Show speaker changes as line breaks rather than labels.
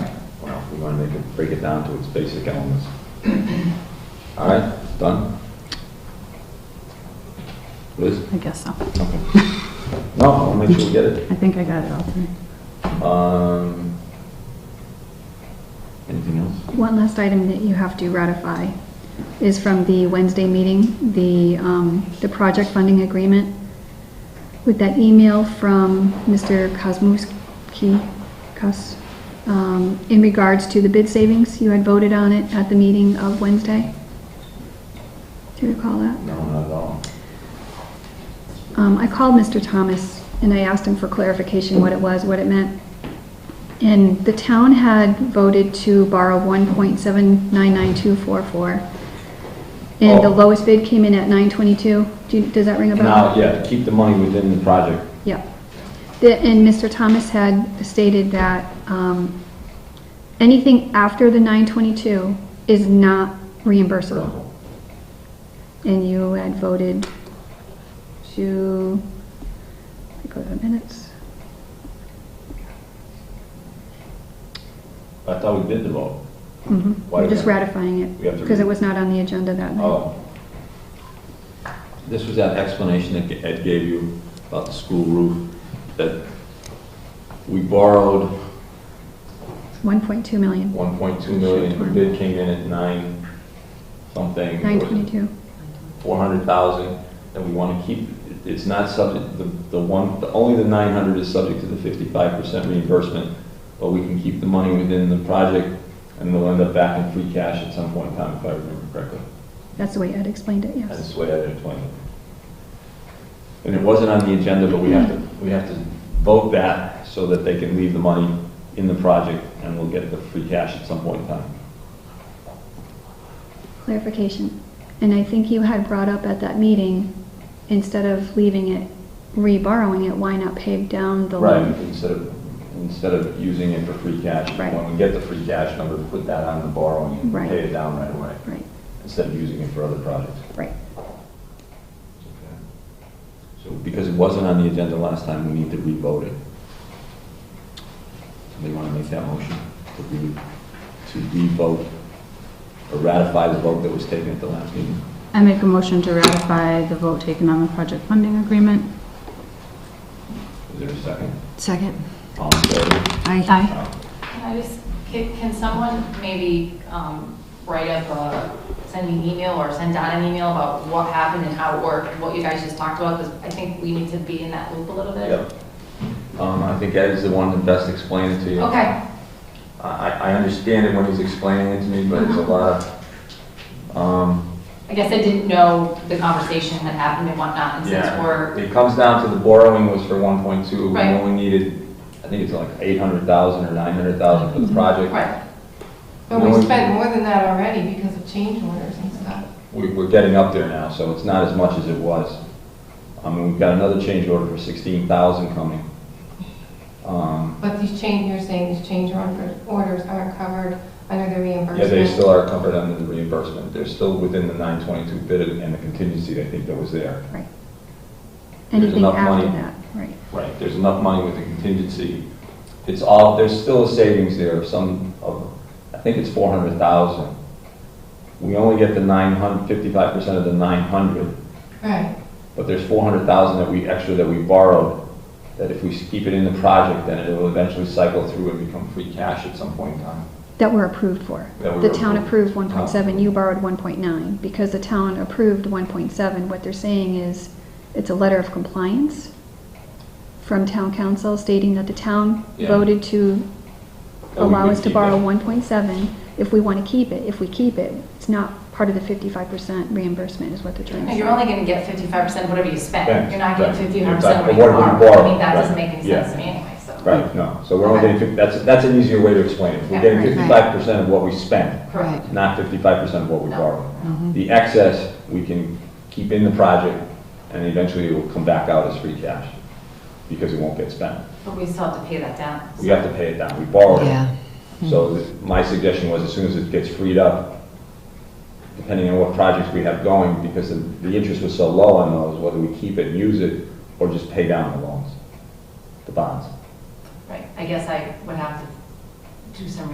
when they can break it down to its basic elements. All right, done? Liz?
I guess so.
Okay. No, I'll make sure we get it.
I think I got it all.
Um, Anything else?
One last item that you have to ratify is from the Wednesday meeting, the, um, the project funding agreement. With that email from Mr. Kosmouski, Kos, um, in regards to the bid savings, you had voted on it at the meeting of Wednesday. Do you recall that?
No, not at all.
Um, I called Mr. Thomas and I asked him for clarification what it was, what it meant. And the town had voted to borrow one point seven nine nine two four four. And the
Oh.
lowest bid came in at nine twenty-two. Do you, does that ring a bell?
Now, yeah, keep the money within the project.
Yep. The- And Mr. Thomas had stated that um, anything after the 922 is not reimbursable. And you had voted to, let me go to the minutes.
I thought we did the vote.
Mhm.
Why do we
Just
have-
ratifying it,
we have to
because it
read-
was not on the agenda that night.
Oh. This was that explanation that Ed gave you about the school roof, that we borrowed
1.2 million,
1.2 million, the bid came in at nine something. It was
922.
400,000, and we want to keep, it's not subject, the the one, the- only the 900 is subject to the 55% reimbursement, but we can keep the money within the project, and they'll end up back in free cash at some point in time, if I remember correctly.
That's the way Ed explained it, yes.
That's the way I explained it. And it wasn't on the agenda, but we have to, we have to vote that so that they can leave the money in the project, and we'll get the free cash at some point in time.
clarification. And I think you had brought up at that meeting, instead of leaving it, reborrowing it, why not pay down the
Right,
loan?
instead of, instead of using it for free cash,
Right.
when we get the free cash number, put that on the borrowing and
Right.
pay it down right away,
Right,
instead of using it for other projects.
right.
So because it wasn't on the agenda last time, we need to re-vote it. Somebody want to make that motion to re, to re-vote or ratify the vote that was taken at the last meeting?
I make a motion to ratify the vote taken on the project funding agreement.
Is there a second?
Second.
All in favor?
Aye.
Can I just, can, can someone maybe um, write up a, send me an email or send Don an email about what happened and how it worked, what you guys just talked about? Because I think we need to be in that loop a little bit.
Yep. Um, I think Ed is the one that best explained it to you.
Okay,
I, I understand it when he's explaining it to me, but it's a lot of, um,
I guess I didn't know the conversation that happened and whatnot, and since
yeah.
we're,
It comes down to the borrowing was for one point two, we
Right.
only needed, I think it's like eight hundred thousand or nine hundred thousand for the project.
right,
But we spent more than that already because of change orders and stuff.
We, we're getting up there now, so it's not as much as it was. I mean, we've got another change order for sixteen thousand coming. Um,
But these change, you're saying these change order- orders aren't covered under the reimbursement?
yeah, they still are covered under the reimbursement, they're still within the nine twenty-two bid and the contingency, I think, that was there. There's
Anything
enough
after
money.
that, right.
Right, there's enough money with the contingency. It's all, there's still a savings there of some, of, I think it's four hundred thousand. We only get the nine hundred, fifty-five percent of the nine hundred,
Right,
but there's four hundred thousand that we, extra that we borrowed, that if we keep it in the project, then it'll eventually cycle through and become free cash at some point in time.
That were approved for.
That we
The
were
town
approved. Uh-huh.
approved 1.7, you borrowed 1.9, because the town approved 1.7. What they're saying is, it's a letter of compliance from town council stating that the town
Yeah.
voted to
That we
allow
would
us to
keep
borrow
it.
1.7 if we want to keep it. If we keep it, it's not part of the 55% reimbursement is what they're trying to
No,
say.
you're only gonna get fifty-five percent of whatever you
Right,
spend. You're not getting
right. Exactly.
fifty-five percent of
But what
what you
we
borrow. I
borrow,
mean, that doesn't
right,
make any
yeah.
sense to me anyway, so.
Right, no, so we're only getting, fif- that's, that's an easier way to explain it. We're
Yeah,
getting
right,
right.
fifty-five percent of what we spent.
Correct.
not fifty-five percent of what we
No.
borrow. The excess, we can keep in the project, and eventually it will come back out as free cash, because it won't get spent.
But we still have to pay that down.
We have to pay it down, we borrowed it.
Yeah.
So th- my suggestion was, as soon as it gets freed up, depending on what projects we have going, because the, the interest was so low on those, whether we keep it and use it, or just pay down the loans, the bonds.
Right, I guess I would have to do some